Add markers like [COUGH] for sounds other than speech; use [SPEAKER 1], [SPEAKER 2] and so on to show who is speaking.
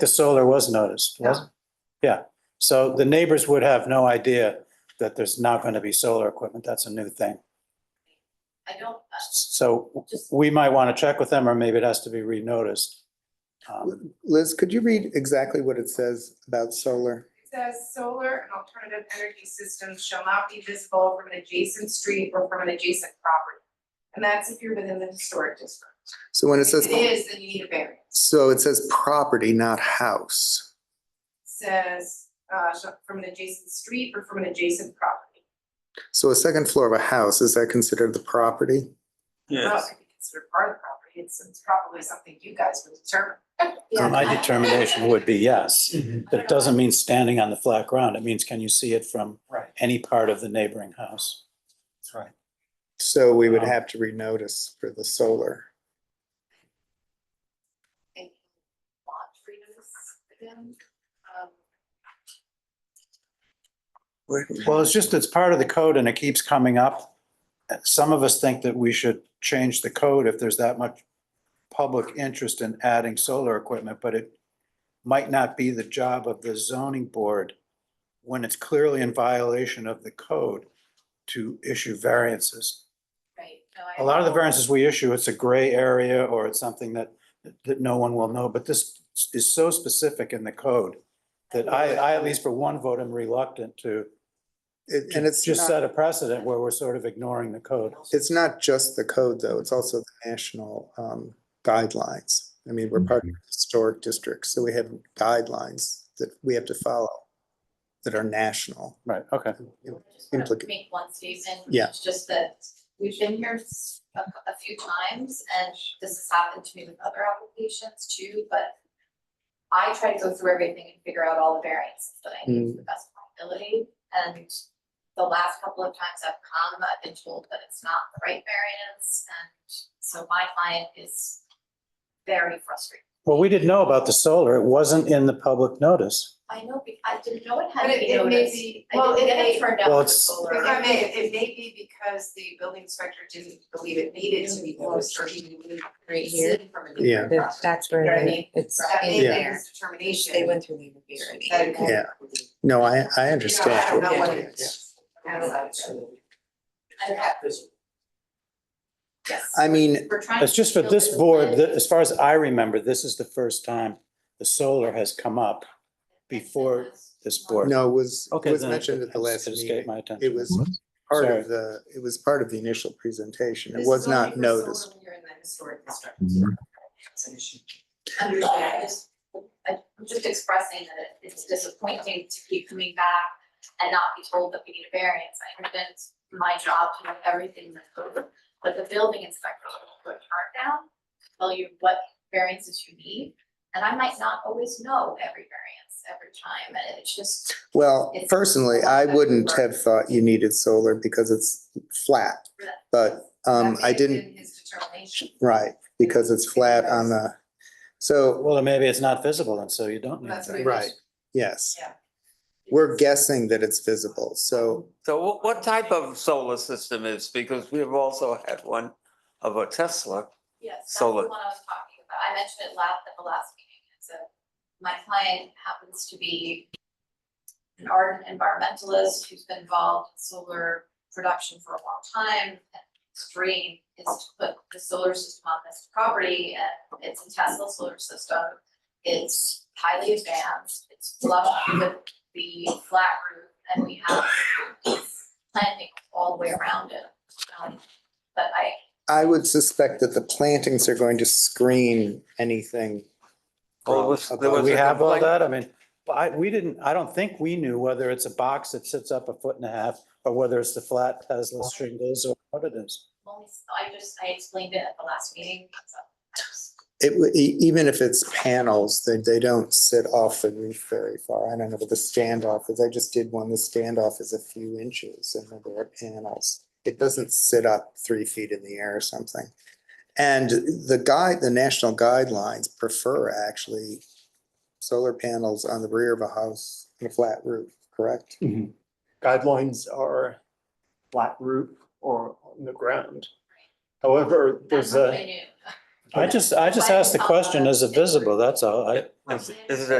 [SPEAKER 1] The solar was noticed, was
[SPEAKER 2] Yeah.
[SPEAKER 1] Yeah, so the neighbors would have no idea that there's not going to be solar equipment. That's a new thing.
[SPEAKER 2] I don't, uh,
[SPEAKER 1] So
[SPEAKER 2] just,
[SPEAKER 1] we might want to check with them, or maybe it has to be renoticed. Um,
[SPEAKER 3] Liz, could you read exactly what it says about solar?
[SPEAKER 4] It says solar and alternative energy systems shall not be visible from an adjacent street or from an adjacent property. And that's if you're within the historic district.
[SPEAKER 3] So when it
[SPEAKER 4] If
[SPEAKER 3] says,
[SPEAKER 4] it is, then you need a variance.
[SPEAKER 3] so it says property, not house.
[SPEAKER 4] Says, uh, sh- from an adjacent street or from an adjacent property.
[SPEAKER 3] So a second floor of a house, is that considered the property?
[SPEAKER 4] Well, it could be considered part of the property. It's, it's probably something you guys would determine.
[SPEAKER 2] yeah.
[SPEAKER 1] My
[SPEAKER 4] [LAUGHS]
[SPEAKER 1] determination would be yes. That doesn't mean standing on the flat ground. It means can you see it from
[SPEAKER 5] Right.
[SPEAKER 1] any part of the neighboring house?
[SPEAKER 5] That's right.
[SPEAKER 3] So we would
[SPEAKER 1] Um.
[SPEAKER 3] have to renotice for the solar.
[SPEAKER 2] and lot freedoms again. Um,
[SPEAKER 1] Well, it's just, it's part of the code and it keeps coming up. Some of us think that we should change the code if there's that much public interest in adding solar equipment, but it might not be the job of the zoning board when it's clearly in violation of the code to issue variances.
[SPEAKER 2] Right, no, I.
[SPEAKER 1] A lot of the variances we issue, it's a gray area or it's something that, that no one will know, but this is so specific in the code that I, I at least for one vote am reluctant to
[SPEAKER 3] It- And
[SPEAKER 1] and it's
[SPEAKER 3] it's
[SPEAKER 1] just
[SPEAKER 3] not,
[SPEAKER 1] set a precedent where we're sort of ignoring the code.
[SPEAKER 3] it's not just the code, though. It's also the national um, guidelines. I mean, we're
[SPEAKER 1] Mm-hmm.
[SPEAKER 3] part of the historic district, so we have guidelines that we have to follow that are national.
[SPEAKER 1] Right, okay.
[SPEAKER 2] Just wanna
[SPEAKER 3] implica-
[SPEAKER 2] Make one statement.
[SPEAKER 3] Yeah.
[SPEAKER 2] It's just that we've been here s- a, a few times and this has happened to me with other applications too, but I try to go through everything and figure out all the variances that I
[SPEAKER 3] Mm,
[SPEAKER 2] need to the best of my ability. And the last couple of times I've come, I've been told that it's not the right variance. And so my client is very frustrated.
[SPEAKER 1] Well, we didn't know about the solar. It wasn't in the public notice.
[SPEAKER 2] I know, be- I didn't know it
[SPEAKER 4] But
[SPEAKER 2] had to
[SPEAKER 4] it-
[SPEAKER 2] be
[SPEAKER 4] it may
[SPEAKER 2] noticed.
[SPEAKER 4] be-
[SPEAKER 2] I
[SPEAKER 4] well,
[SPEAKER 2] didn't
[SPEAKER 4] it
[SPEAKER 2] get
[SPEAKER 4] may-
[SPEAKER 2] it turned out
[SPEAKER 1] Well,
[SPEAKER 2] for
[SPEAKER 1] it's-
[SPEAKER 2] solar.
[SPEAKER 4] If I may, it may be because the building inspector didn't believe it needed to be noticed or he knew.
[SPEAKER 6] right
[SPEAKER 2] It's
[SPEAKER 6] here.
[SPEAKER 2] hidden from a
[SPEAKER 3] Yeah.
[SPEAKER 2] neighbor.
[SPEAKER 6] That- That's
[SPEAKER 4] You know
[SPEAKER 6] where
[SPEAKER 4] what I
[SPEAKER 6] they- it's,
[SPEAKER 4] That may
[SPEAKER 6] in
[SPEAKER 4] be
[SPEAKER 6] there.
[SPEAKER 4] his determination.
[SPEAKER 6] They went through the
[SPEAKER 4] That it
[SPEAKER 6] review.
[SPEAKER 4] could-
[SPEAKER 3] Yeah. No, I, I
[SPEAKER 4] You know, I
[SPEAKER 3] understand.
[SPEAKER 4] don't know
[SPEAKER 6] Yeah.
[SPEAKER 4] what it is. I don't know.
[SPEAKER 2] I don't know. Yes.
[SPEAKER 3] I mean,
[SPEAKER 2] We're trying
[SPEAKER 1] It's just for
[SPEAKER 2] to
[SPEAKER 1] this
[SPEAKER 2] build
[SPEAKER 1] board,
[SPEAKER 2] plan.
[SPEAKER 1] that, as far as I remember, this is the first time the solar has come up. before this board.
[SPEAKER 3] no, it was, it
[SPEAKER 1] Okay,
[SPEAKER 3] was
[SPEAKER 1] then
[SPEAKER 3] mentioned at the last
[SPEAKER 1] It
[SPEAKER 3] meeting.
[SPEAKER 1] escaped my attention.
[SPEAKER 3] It was part
[SPEAKER 1] Sorry.
[SPEAKER 3] of the, it was part of the initial presentation.
[SPEAKER 4] This
[SPEAKER 3] It
[SPEAKER 4] is
[SPEAKER 3] was
[SPEAKER 4] only
[SPEAKER 3] not
[SPEAKER 4] for
[SPEAKER 3] noticed.
[SPEAKER 4] solar when You're in the historic district. It's an issue.
[SPEAKER 2] Understand, I just, I- I'm just expressing that it- it's disappointing to keep coming back and not be told that we need a variance. I understand it's my job to know everything in the code, but the building inspector will put a chart down, tell you what variances you need, and I might not always know every variance every time, and it's just,
[SPEAKER 3] Well,
[SPEAKER 2] It's-
[SPEAKER 3] personally, I wouldn't have thought you needed solar because it's flat. But um,
[SPEAKER 4] That may
[SPEAKER 3] I
[SPEAKER 4] have been
[SPEAKER 3] didn't,
[SPEAKER 4] His determination.
[SPEAKER 3] right, because it's flat on the, so,
[SPEAKER 1] Well, then maybe it's not visible and so you don't need
[SPEAKER 4] That's
[SPEAKER 1] that.
[SPEAKER 4] what-
[SPEAKER 3] right, yes.
[SPEAKER 4] Yeah.
[SPEAKER 3] We're guessing that it's visible, so
[SPEAKER 5] So what, what type of solar system is, because we have also had one of a Tesla.
[SPEAKER 2] Yes, that's the one
[SPEAKER 5] Solar.
[SPEAKER 2] I was talking about. I mentioned it last, at the last meeting. It's a, my client happens to be an ardent environmentalist who's been involved in solar production for a long time. And His dream is to put the solar system on this property and it's a Tesla solar system. It's highly advanced, it's flush with the flat roof and we have planting all the way around it. Um, But I,
[SPEAKER 3] I would suspect that the plantings are going to screen anything.
[SPEAKER 5] Well, it was-
[SPEAKER 3] from
[SPEAKER 5] there
[SPEAKER 3] above.
[SPEAKER 5] was
[SPEAKER 1] But Oh, we
[SPEAKER 5] a
[SPEAKER 1] have all
[SPEAKER 5] complaint?
[SPEAKER 1] that. I mean, but I, we didn't, I don't think we knew whether it's a box that sits up a foot and a half or whether it's the flat Tesla shingles or what it is.
[SPEAKER 2] Only, I just, I explained it at the last meeting, so. I just-
[SPEAKER 3] It, w- e- even if it's panels, they, they don't sit off the roof very far. I don't know what the standoff is. I just did one. The standoff is a few inches and then there are panels. It doesn't sit up three feet in the air or something. And the guide, the national guidelines prefer actually solar panels on the rear of a house and a flat roof, correct?
[SPEAKER 7] guidelines are flat roof or on the ground. However, there's
[SPEAKER 2] That's what
[SPEAKER 7] a,
[SPEAKER 2] I knew.
[SPEAKER 1] I just, I just asked the question, is it visible? That's all. I,
[SPEAKER 5] Is is it a